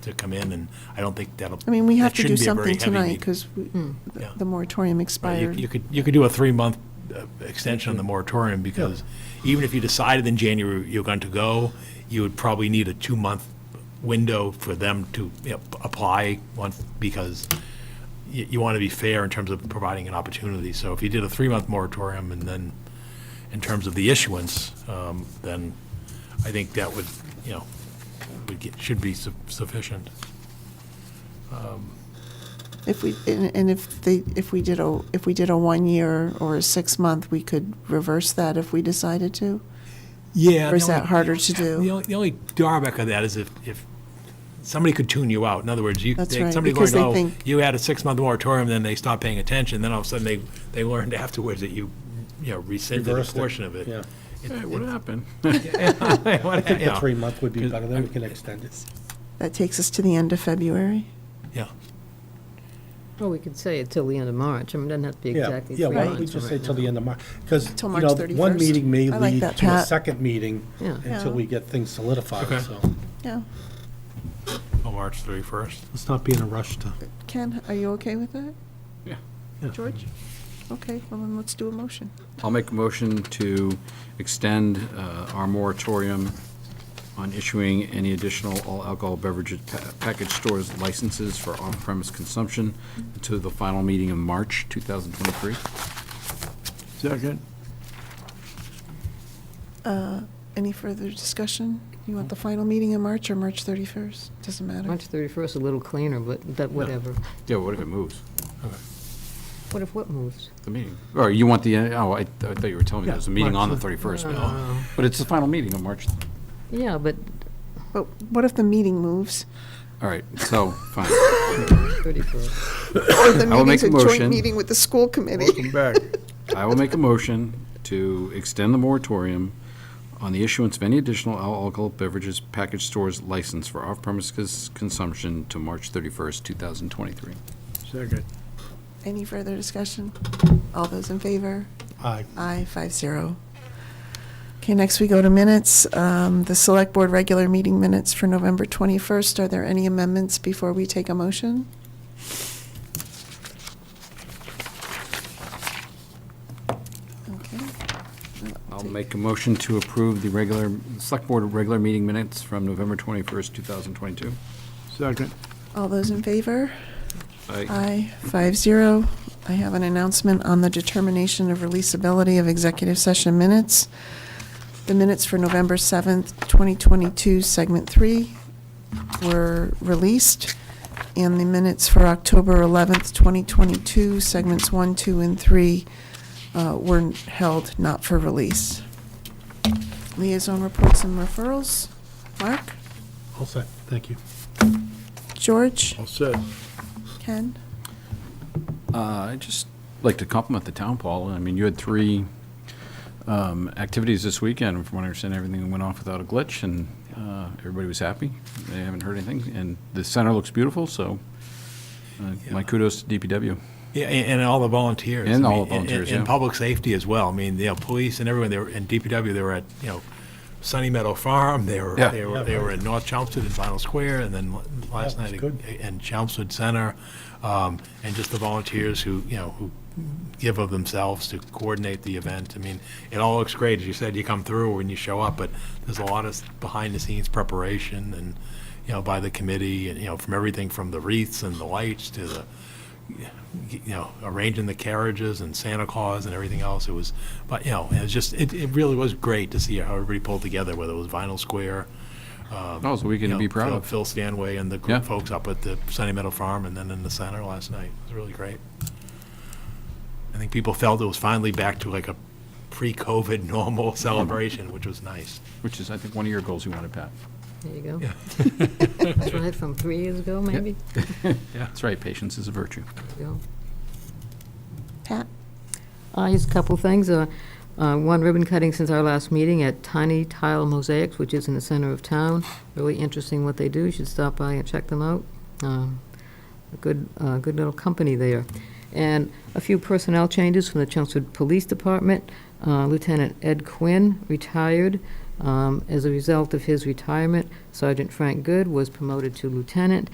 to come in, and I don't think that'll. I mean, we that have to do shouldn't be a very something heavy tonight meeting. because Yeah. the Right, you- moratorium You expired. could, you could do a three-month uh, extension on the moratorium, because even if you decided in January you're going to go, you would probably need a two-month window for them to you know, p- apply once, because you, you want to be fair in terms of providing an opportunity. So if you did a three-month moratorium, and then, in terms of the issuance, um, then I think that would, you know, would get, should be su- sufficient. If we, and and if they, if we did a, if we did a one-year or a six-month, we could reverse that if we decided to. Yeah. Or is the that only- harder to do? The only, the only drawback of that is if, if somebody could tune you out. In other words, you, That's they- right, somebody because learned, they oh, think- you had a six-month moratorium, then they stopped paying attention, then all of a sudden they, they learned afterwards that you, you know, rescinded a Reversed it, portion of it. yeah. It- Hey, it- what happened? I think you the know, three month would be better, then we can extend it. That takes us to the end of February. Yeah, Well, we could say it till the end of March. I mean, it doesn't have to be Yeah, exactly three yeah, why don't we months just from say right till now. the end of March? Because, Till you March know, 31st. one meeting may I like lead that, to a Pat. second meeting Yeah. until Yeah. we get things Okay. solidified, so. Yeah. Oh, on March 31st. Let's not be in a rush to. Ken, are you okay with that? Yeah. George? Okay, well then let's do a motion. I'll make a motion to extend uh, our moratorium on issuing any additional all alcohol beverages pa- package stores licenses for on-premise consumption to the final meeting in March 2023. Second. Any further discussion? You want the final meeting in March or March 31st? Doesn't matter. March 31st, a little cleaner, but that, whatever. Yeah, what if it moves, What if what moves? the meeting? Or you want the, uh, oh, I I thought you were telling me there's a Yeah, meeting on the March. 31st, but- but it's the final meeting on March, Yeah, but But what if the meeting moves? all right, so, fine. 31st. Or the I will meeting's make a a joint motion. meeting with the school committee? back. I will make a motion to extend the moratorium on the issuance of any additional all alcohol beverages package stores license for off-premises consumption to March 31st, 2023. Second. Any further discussion? All those in favor? Aye. Aye, five zero. Okay, next we go to minutes. Um, The Select Board regular meeting minutes for November 21st. Are there any amendments before we take a motion? Okay. I'll make a motion to approve the regular, Select Board regular meeting minutes from November 21st, 2022. Second. All those in favor? I Aye, five zero. I have an announcement on the determination of releasability of executive session minutes. The minutes for November 7th, 2022, Segment 3 were released, and the minutes for October 11th, 2022, Segments 1, 2, and 3 uh, were held not for release. Liaison reports and referrals. Mark? All set, thank you. George? All set. Ken? Uh, I just like to compliment the town, Paul. I mean, you had three um, activities this weekend. From what I understand, everything went off without a glitch, and uh, everybody was happy. They haven't heard anything, and the center looks beautiful, so uh, my kudos to DPW. Yeah, a- and, and all the volunteers. And I all mean, the volunteers, And, and yeah. public safety as well. I mean, you know, police and everyone, they were, and DPW, they were at, you know, Sunny Meadow Farm, they were, Yeah. they were, they were in North Chelmsford and Final Square, and then l- last Yeah, night, it's good. and Chelmsford Center, um, and just the volunteers who, you know, who give of themselves to coordinate the event. I mean, it all looks great, as you said, you come through when you show up, but there's a lot of behind-the-scenes preparation and, you know, by the committee, and, you know, from everything from the wreaths and the lights to the, you know, arranging the carriages and Santa Claus and everything else. It was, but, you know, it was just, it, it really was great to see how everybody pulled together, whether it was Vinyl Square. That was a weekend Um, you to be know, proud Phil- of. Phil Stanway and the Yeah. group folks up at the Sunny Meadow Farm and then in the center last night. It was really great. I think people felt it was finally back to like a pre-COVID normal celebration, which was nice. Which is, I think, one of your goals you wanted, Pat. There you go. That's right, from three years ago, maybe? That's right, patience is a virtue. Yeah. Pat? Uh, Just a couple things. Uh, uh, One ribbon cutting since our last meeting at Tiny Tile Mosaics, which is in the center of town. Really interesting what they do. You should stop by and check them out. Um, A good, uh, good little company there. And a few personnel changes from the Chelmsford Police Department. Uh, Lieutenant Ed Quinn retired. Uh, Um, As a result of his retirement, Sergeant Frank Good was promoted to lieutenant,